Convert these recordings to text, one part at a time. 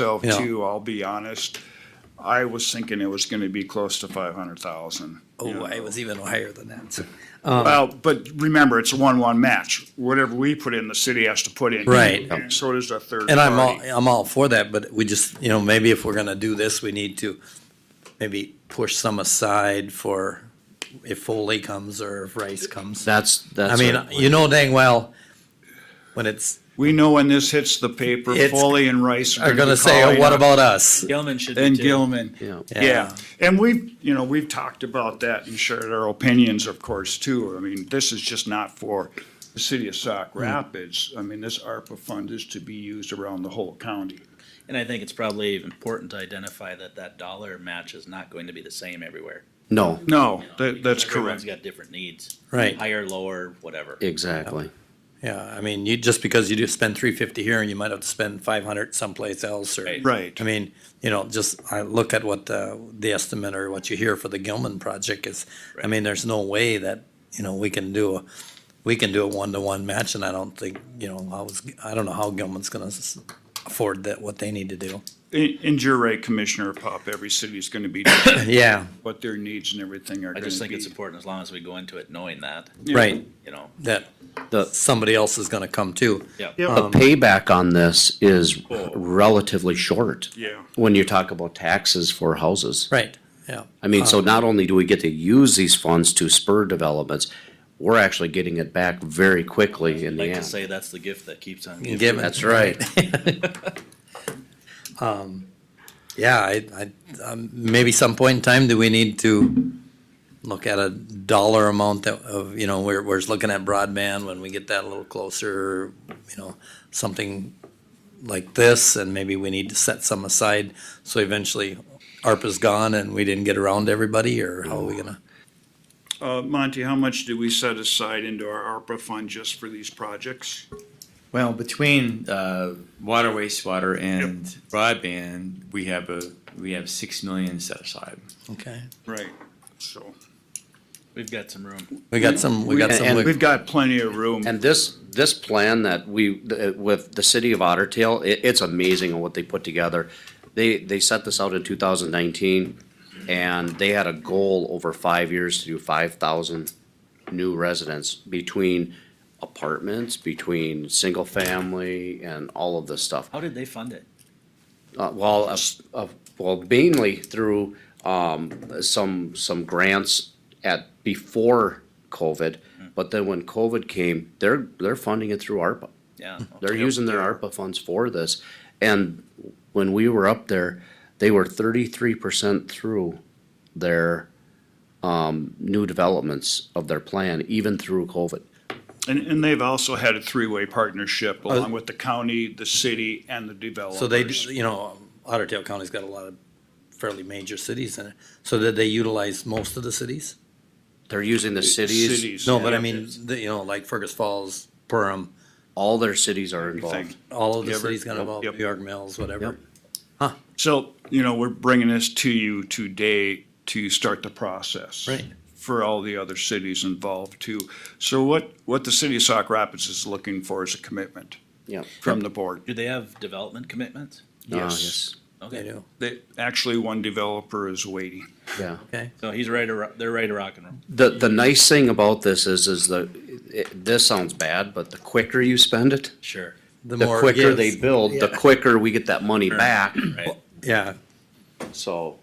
myself Yeah. too, I'll be honest. I was thinking it was gonna be close to five hundred thousand. Oh, it was even higher than that. so- Well, but remember, it's a one-one match. Whatever we put in, the city has to put in. Right. And So does the third And I'm all, party. I'm all for that, but we just, you know, maybe if we're gonna do this, we need to maybe push some aside for if Foley comes or if Rice comes. That's, I that's. mean, you know dang well, when it's, We know when this hits the paper, It's- Foley and Rice are are gonna say, oh, what about us? Gilman should be And too. Gilman. Yeah. Yeah, and we've, you know, we've talked about that and shared our opinions, of course, too. I mean, this is just not for the city of Hmm. Sauk Rapids. I mean, this ARPA fund is to be used around the whole county. And I think it's probably important to identify that that dollar match is not going to be the same everywhere. No, No, you know, that, that's because Everyone's correct. got different needs. Right. Higher, lower, whatever. exactly. Yeah, I mean, you, just because you do spend three fifty here and you might have to spend five hundred someplace else or. Right. Right. I mean, you know, just, I look at what the, the estimate or what you hear for the Gilman project is, I mean, there's no way that, you know, we can do a, we can do a one-to-one match and I don't think, you know, I was, I don't know how Gilman's gonna s- afford that, what they need to do. And, and you're right, Commissioner Pop, every city's gonna be, different, Yeah, what their needs and everything are I gonna be. just think it's important as long as we go into it knowing that, right, you know. that The, somebody else is gonna come too. Yeah. Yep. the payback on this is relatively short. Yeah. When you talk about taxes for houses. Right, yeah, I mean, so not only do we get to use these funds to spur developments, we're actually getting it back very quickly in the Like to end. say that's the gift that keeps on giving. given. That's right. Yeah, I, I, um, maybe some point in time, do we need to look at a dollar amount that, of, you know, we're, we're just looking at broadband, when we get that a little closer, you know, something like this, and maybe we need to set some aside, so eventually ARPA's gone and we didn't get around to everybody, or how are we gonna? Uh, Monty, how much do we set aside into our ARPA fund just for these projects? Well, between uh, water, wastewater, and broadband, we have a we have six million set aside. Okay, Right, so. We've got some room. we got some, we got some, And- wig- We've got plenty of room. And this, this plan that we, th- with the city of Otter Tail, it, it's amazing what they put together. They, they set this out in two thousand nineteen, and they had a goal over five years to do five thousand new residents between apartments, between single family, and all of this stuff. How did they fund it? Uh, well, uh, uh, well, mainly through, um, some, some grants at, before COVID. Hmm. But then when COVID came, they're, they're funding it through ARPA. Yeah. They're using their ARPA funds for this. And when we were up there, they were thirty-three percent through their, um, new developments of their plan, even through COVID. And, and they've also had a three-way partnership along with the county, the city, and the developers. Uh, so they, d- you know, Otter Tail County's got a lot of fairly major cities in it, so did they utilize most of the cities? They're using the cities, Cities. No, but I mean, the- you know, like Fergus Falls, Perham, all their cities are Everything. involved. all of the Everett, cities gonna involve, yep. New York Mills, whatever. So, you know, we're bringing this to you today to start the process. Right. For all the other cities involved too. So what, what the city of Sauk Rapids is looking for is a commitment Yeah. from the board. Do they have development commitments? Ah, Yes. They Okay. do, They, actually, one developer is waiting. Yeah. okay. So he's ready to, ro- they're ready to rock and roll. The, the nice thing about this is, is the, it, this sounds bad, but the quicker you spend it, Sure. the more it quicker gives. they build, the quicker we get that money back, Right. Yeah, so.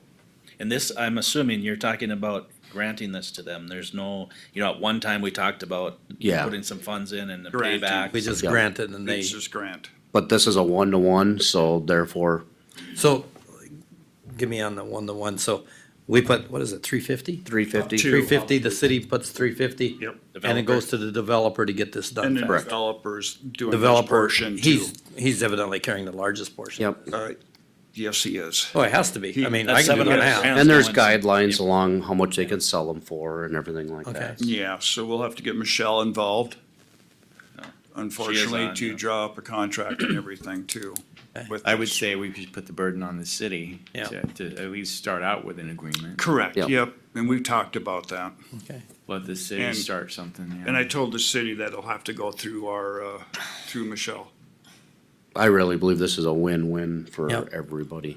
And this, I'm assuming you're talking about granting this to them. There's no, you know, at one time we talked about Yeah. putting some funds in and the Granting. payback. we just Yeah. granted and they, It's this grant. But this is a one-to-one, so therefore, so, give me on the one, to one, so we put, what is it, three fifty? three fifty. Two. Three fifty, the city puts three fifty. Yep. And it Developer. goes to the developer to get this And done. the fast. developer's doing this Developer, portion too. he's, he's evidently carrying the largest portion. Yep, Uh, Yes, he is. Oh, it has to be, I mean, I That's can do it 700 now. grand. and there's Someone- guidelines along how much they can sell them for and everything like Okay. that. Yeah, so we'll have to get Michelle involved. Unfortunately, on, to yeah. draw up a contract and everything too. with I would this. say we should put the burden on the city Yeah. to, to at least start out with an agreement. Correct, Yep. yep, and we've talked about that. Okay. Let the city And- start something. Yeah. And I told the city that it'll have to go through our, uh, through Michelle. I really believe this is a win-win for Yep. everybody.